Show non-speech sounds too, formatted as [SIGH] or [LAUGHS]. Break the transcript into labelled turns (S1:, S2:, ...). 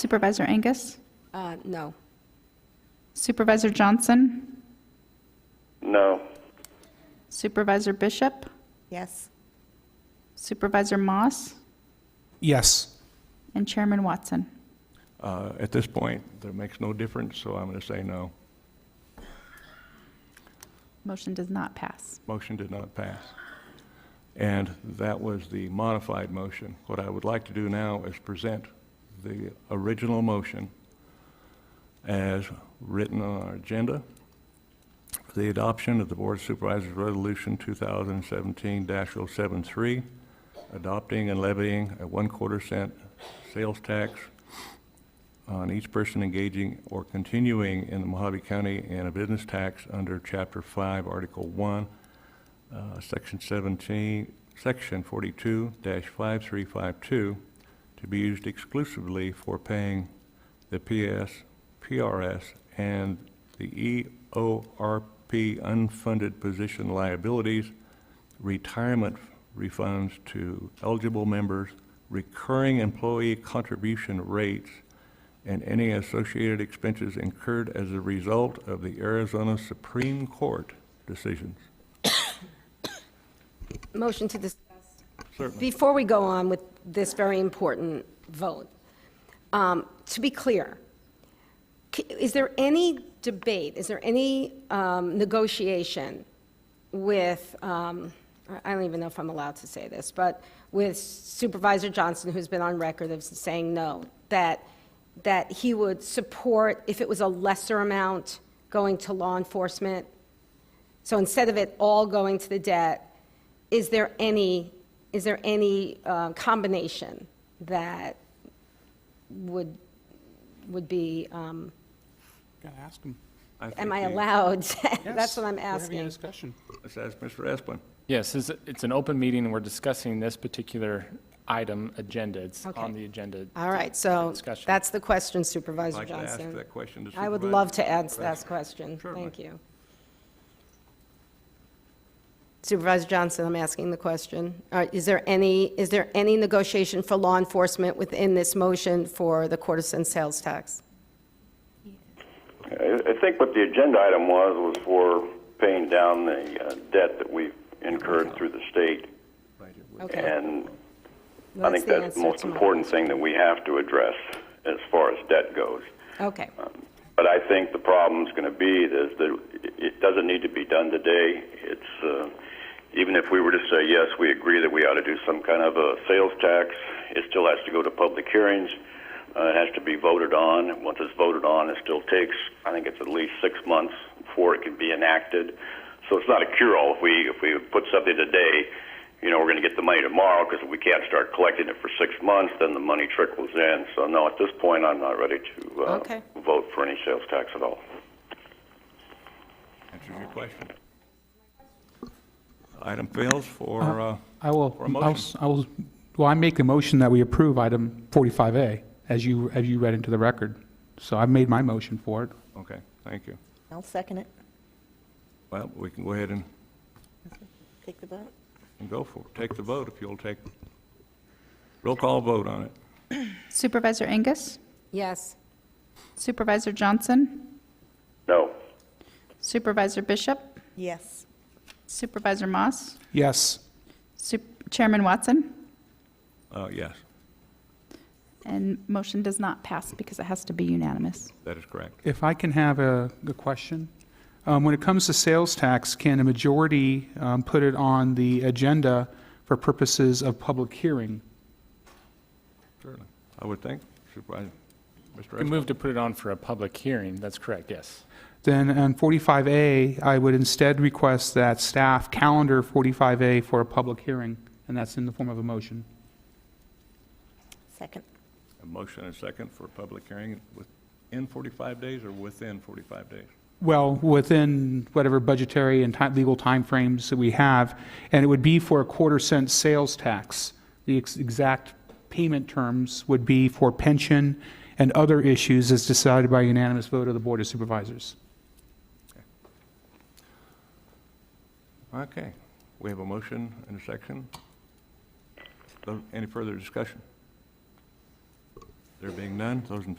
S1: Supervisor Angus?
S2: Uh, No.
S1: Supervisor Johnson?
S3: No.
S1: Supervisor Bishop?
S4: Yes.
S1: Supervisor Moss?
S5: Yes.
S1: And Chairman Watson?
S3: Uh, At this point, that makes no difference, so I'm going to say no.
S1: Motion does not pass.
S3: Motion did not pass. And that was the modified motion. What I would like to do now is present the original motion as written on our agenda for the adoption of the Board of Supervisors Resolution 2017-073, adopting and levying a one-quarter cent sales tax on each person engaging or continuing in the Mojave County in a business tax under Chapter 5, Article 1, uh, Section 17, Section 42-5352, to be used exclusively for paying the PS, PRS, and the E EORP unfunded position liabilities, retirement refunds to eligible members, recurring employee contribution rates, and any associated expenses incurred as a result of the Arizona Supreme Court decisions.
S2: Motion to discuss.
S3: Certainly.
S2: Before we go on with this very important vote, um, to be clear, c- is there any debate, is there any um, negotiation with, um, I don't even know if I'm allowed to say this, but with Supervisor Johnson, who's been on record of saying no, that, that he would support, if it was a lesser amount, going to law enforcement? So instead of it all going to the debt, is there any, is there any uh, combination that would, would be, um,
S5: Gotta ask him.
S2: am
S3: think
S2: I
S3: he-
S2: allowed? [LAUGHS] That's what I'm
S5: We're having a
S2: asking.
S5: discussion.
S3: Let's ask Mr. Espin.
S6: Yes, it's, it's an open meeting, and we're discussing this particular item agenda. It's
S2: Okay. Uh,
S6: on the agenda.
S2: All right, so
S6: Discussion.
S2: that's the question,
S3: I'd
S2: Supervisor
S3: like to ask
S2: Johnson.
S3: that question to
S2: I would
S3: Supervisor
S2: love to answer
S3: Johnson.
S2: that question.
S3: Certainly.
S2: Thank you. Supervisor Johnson, I'm asking the question. All right, Is there any, is there any negotiation for law enforcement within this motion for the quarter cent sales tax?
S7: I I think what the agenda item was, was for paying down the uh, debt that we've incurred through the state.
S2: Okay.
S7: And
S2: Well,
S7: I think
S2: the
S7: that's the
S2: answer
S7: most
S2: to my-
S7: important thing that we have to address as far as debt goes.
S2: Okay,
S7: Um, But I think the problem's going to be is that it- it doesn't need to be done today. It's, uh, even if we were to say, yes, we agree that we ought to do some kind of a sales tax, it still has to go to public hearings. Uh, it has to be voted on. And Once it's voted on, it still takes, I think it's at least six months before it can be enacted. So it's not a cure-all. If we, if we put something today, you know, we're going to get the money tomorrow because if we can't start collecting it for six months, then the money trickles in. So no, at this point, I'm not ready to uh,
S2: Okay.
S7: vote for any sales tax at all.
S3: Answers your question. Item fails for, uh,
S5: I will,
S3: For a
S5: I'll
S3: motion.
S5: s- I will, well, I make the motion that we approve item 45A, as you, as you read into the record. So I've made my motion for it.
S3: okay, thank you.
S4: I'll second it.
S3: Well, we can go ahead and
S4: Take the vote.
S3: and go for it. Take the vote if you'll take, roll call vote on it.
S1: Supervisor Angus?
S2: yes.
S1: Supervisor Johnson?
S7: No.
S1: Supervisor Bishop?
S4: Yes.
S1: Supervisor Moss?
S5: Yes.
S1: Sup- Chairman Watson?
S3: Uh, Yes,
S1: And motion does not pass because it has to be unanimous.
S3: that is correct.
S5: If I can have a, a question? Um, When it comes to sales tax, can a majority um, put it on the agenda for purposes of public hearing?
S3: Certainly. I would think. Supervisor, Mr.
S6: We
S3: Espin.
S6: moved to put it on for a public hearing. That's correct, yes.
S5: Then on 45A, I would instead request that staff calendar 45A for a public hearing, and that's in the form of a motion.
S4: Second.
S3: A motion and a second for a public hearing within 45 days or within 45 days?
S5: Well, within whatever budgetary and ti- legal timeframes that we have, and it would be for a quarter cent sales tax. The ex- exact payment terms would be for pension and other issues as decided by unanimous vote of the Board of Supervisors.
S3: Okay, we have a motion and a section. Any further discussion? There being none, those in